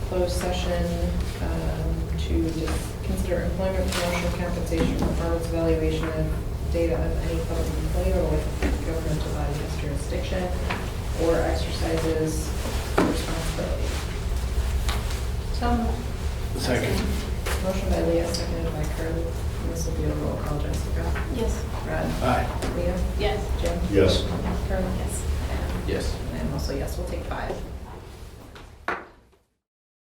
closed session um, to dis- consider employment, promotion, compensation, performance evaluation of data of any public employee or with governmental body as jurisdiction, or exercises responsibility. So, Second. motion by Leah, seconded by Carly. This will be a roll call, Jessica. Yes. Brad? Aye. Leah? Yes. Jim? Yes. Carly? Yes. Yes. And I'm also yes, we'll take five.